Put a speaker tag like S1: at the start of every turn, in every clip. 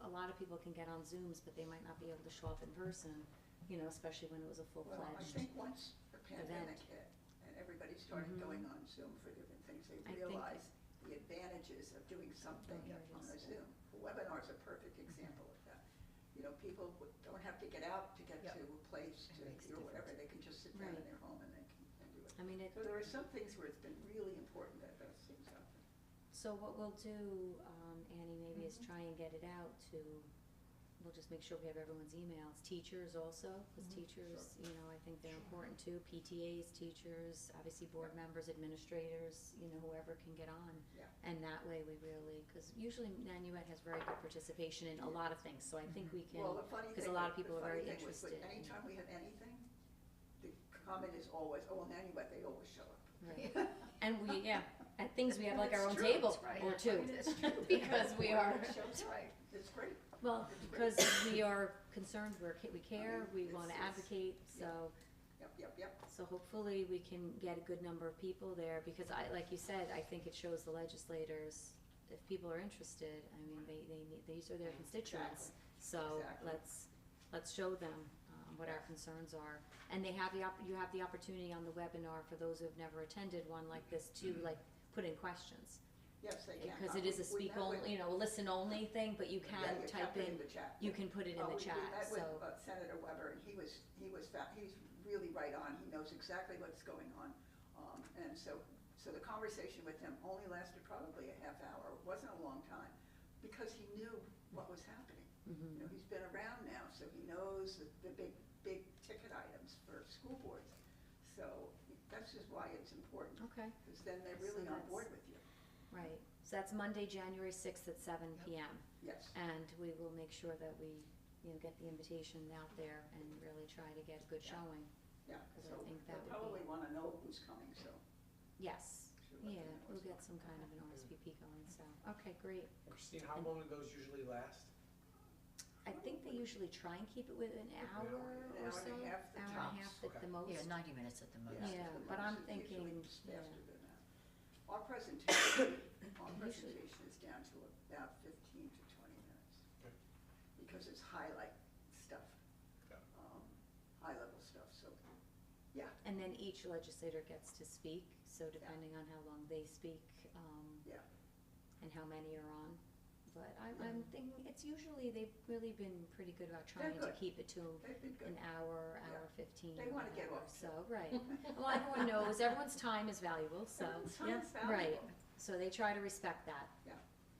S1: a lot of people can get on Zooms, but they might not be able to show up in person, you know, especially when it was a
S2: Well, I
S1: full-fledged.
S2: think once the pandemic hit and everybody started
S1: Mhm.
S2: going on Zoom for different things, they
S1: I think-
S2: realized the advantages of doing something
S1: Here it
S2: on
S1: is.
S2: a Zoom. Webinar's a perfect
S1: Mm-hmm.
S2: example of that. You know, people w- don't have to get out to get
S3: Yep.
S2: to a place
S3: It
S2: to,
S3: makes
S2: or whatever,
S3: difference.
S2: they can just sit down in
S1: Right.
S2: their home and they can and do it.
S1: I mean, it,
S2: So there are some things where it's been really important that those things happen.
S1: so what we'll do, um, Annie, maybe
S2: Mm-hmm.
S1: is try and get it out to, we'll just make sure we have everyone's emails, teachers also, cause
S2: Mm-hmm.
S3: Mhm.
S1: teachers, you know, I think they're
S3: Sure.
S1: important too, PTAs, teachers, obviously board members, administrators, you know, whoever can get on.
S2: Yeah.
S1: And that way we really, cause usually Nanuet has very good participation in a lot of things, so I think we can.
S2: Mm-hmm. Well, the funny
S1: because
S2: thing
S1: a lot
S2: was-
S1: of people
S2: the
S1: are very
S2: funny thing was, but
S1: interested in-
S2: Anytime we have anything, the comment is always, oh, well, anyway, they always show up.
S1: Right. And we, yeah, at things we have like our own
S2: It's true,
S1: table
S3: it's right.
S1: or
S3: I
S1: two.
S3: mean, it's true.
S1: Because we are,
S2: It shows, right, it's great.
S1: well, because we are concerned, we're, ca- we care, we
S2: it's-
S1: wanna
S2: it's-
S1: advocate, so,
S2: Yep, yep, yep.
S1: so hopefully we can get a good number of people there, because I, like you said, I think it shows the legislators, if people are interested, I mean, they, they need, these are their constituents. So
S2: Exactly.
S1: let's, let's show them, um, what our concerns are. And they have the op, you have the opportunity on the webinar for those who have never attended one like this to,
S2: Mm-hmm.
S1: like, put in questions.
S2: Yes, they can.
S1: Because it is a
S2: We
S1: speak
S2: met with-
S1: only, you know, a listen only thing, but you
S2: yeah,
S1: can
S2: you
S1: type
S2: put
S1: in,
S2: the chat.
S1: you can put it in
S2: Oh, we-
S1: the chat,
S2: We
S1: so,
S2: met with uh, Senator Weber, and he was, he was, fa- he's really right on, he knows exactly what's going on. Um, And so, so the conversation with him only lasted probably a half hour, It wasn't a long time, because he knew what was happening.
S1: mhm,
S2: You know, he's been around now, so he knows the, the big, big ticket items for school boards. So that's just why it's important,
S1: okay,
S2: because then they're
S1: So
S2: really on
S1: that's-
S2: board with you.
S1: right. So that's Monday, January sixth at seven
S3: Yep.
S1: PM.
S2: Yes,
S1: And we will make sure that we, you know, get the invitation out there and really try to get a good
S2: Yeah.
S1: showing.
S2: yeah,
S1: Because I
S2: so
S1: think that
S2: they'll
S1: would be-
S2: probably want to know who's coming, so.
S1: Yes, yeah, we'll get some kind of an RSVP going, so, okay, great.
S4: Christine, how long do those usually last?
S1: I think they usually try and keep it within an
S4: An
S1: hour
S2: An
S4: hour.
S1: or
S2: hour
S1: so,
S2: and a half, the
S1: hour and a
S4: tops.
S1: half at the
S4: Okay.
S1: most.
S3: Yeah, ninety minutes at the
S2: Yeah,
S3: most.
S1: Yeah,
S2: it's
S1: but
S2: the
S1: I'm
S2: most- it's usually
S1: thinking,
S2: it's
S1: yeah.
S2: faster than that. Our presentation, our
S1: Usually-
S2: presentation is down to about fifteen to twenty minutes.
S4: Okay.
S2: Because it's highlight stuff,
S4: Got it.
S2: um, high-level stuff, so, yeah,
S1: And then each legislator gets to speak, so depending on how long they speak, um,
S2: Yeah.
S1: and how many are on. But I'm, I'm thinking, it's usually, they've really been pretty good about
S2: They're
S1: trying to
S2: good.
S1: keep it to
S2: they've been
S1: an
S2: good.
S1: hour,
S2: Yeah.
S1: hour fifteen.
S2: They wanna get
S1: whatever,
S2: off
S1: So, right. Well, everyone knows, everyone's time is valuable, so,
S2: Everyone's time
S3: yeah,
S2: is
S1: right.
S2: valuable.
S1: so they try to respect that.
S2: Yeah.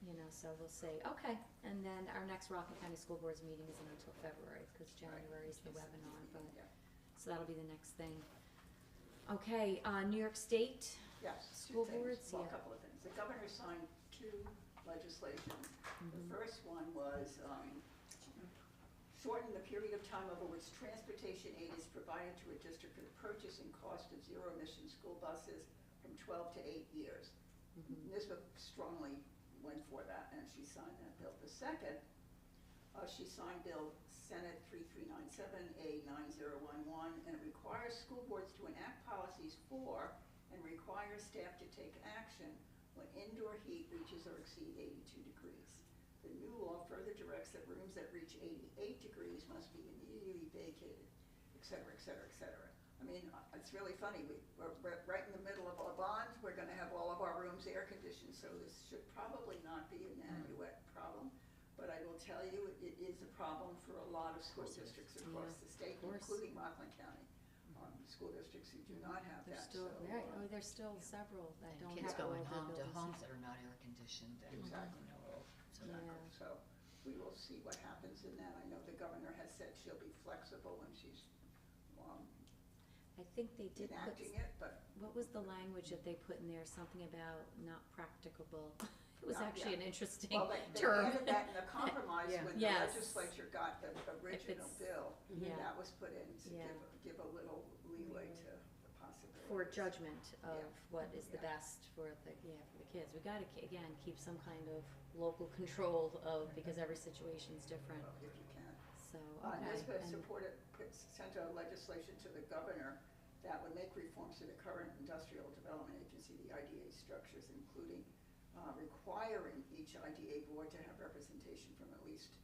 S1: You know, so we'll say, okay, and then our next Rockland County School Board's meeting isn't until February, because January is the webinar, but,
S2: Yeah.
S1: so that'll be the next thing. Okay, uh, New York State,
S2: Yes, two
S1: School
S2: things,
S1: boards,
S2: well, a
S1: yeah.
S2: couple of things. The governor signed two legislations.
S1: Mhm.
S2: The first one was, um, shorten the period of time over which transportation aid is provided to a district for the purchase and cost of zero-emission school buses from twelve to eight years.
S1: Mhm.
S2: Nisbet strongly went for that, and she signed that bill. The second, uh, she signed Bill Senate three three nine seven A nine zero one one, and it requires school boards to enact policies for and requires staff to take action when indoor heat reaches or exceeds eighty-two degrees. The new law further directs that rooms that reach eighty-eight degrees must be immediately vacated, et cetera, et cetera, et cetera. I mean, uh, it's really funny, we, we're, we're right in the middle of a bond, we're gonna have all of our rooms air conditioned, so this should probably not be an
S1: Hmm.
S2: annual problem. But I will tell you, it is a problem for a lot of school
S3: course it is.
S2: districts across the state,
S1: of course.
S2: including Rockland County. Um, school districts who do not have
S1: There's
S2: that,
S1: still,
S2: so,
S1: right,
S2: uh,
S1: oh, there's still several that
S3: And
S1: don't
S3: kids
S1: have all
S3: going
S1: their
S3: home to
S1: buildings.
S3: homes that are not air conditioned and, you
S2: Exactly.
S3: know, so
S1: Yeah.
S3: that-
S2: So we will see what happens in that. I know the governor has said she'll be flexible when she's um,
S1: I think they did put,
S2: enacting it, but
S1: what was the language that they put in there, something about not practicable? It was
S2: Not-
S1: actually
S2: yeah.
S1: an interesting
S2: well, they they
S1: term.
S2: added that in the compromise
S3: Yeah.
S2: when the
S1: Yes.
S2: legislature got the original
S1: it's-
S2: bill.
S1: Yeah.
S2: That was put in to
S1: Yeah.
S2: give, give a little leeway to the possibility.
S1: For judgment of
S2: Yeah.
S1: what is the
S2: Yeah.
S1: best for the, yeah, for the kids. We gotta, ke- again, keep some kind of local control of, because every situation's different,
S2: If you can.
S1: so,
S2: Uh,
S1: okay.
S2: NISBA
S1: and-
S2: supported, put- sent a legislation to the governor that would make reforms to the current industrial development agency, the IDA structures, including uh, requiring each IDA board to have representation from at least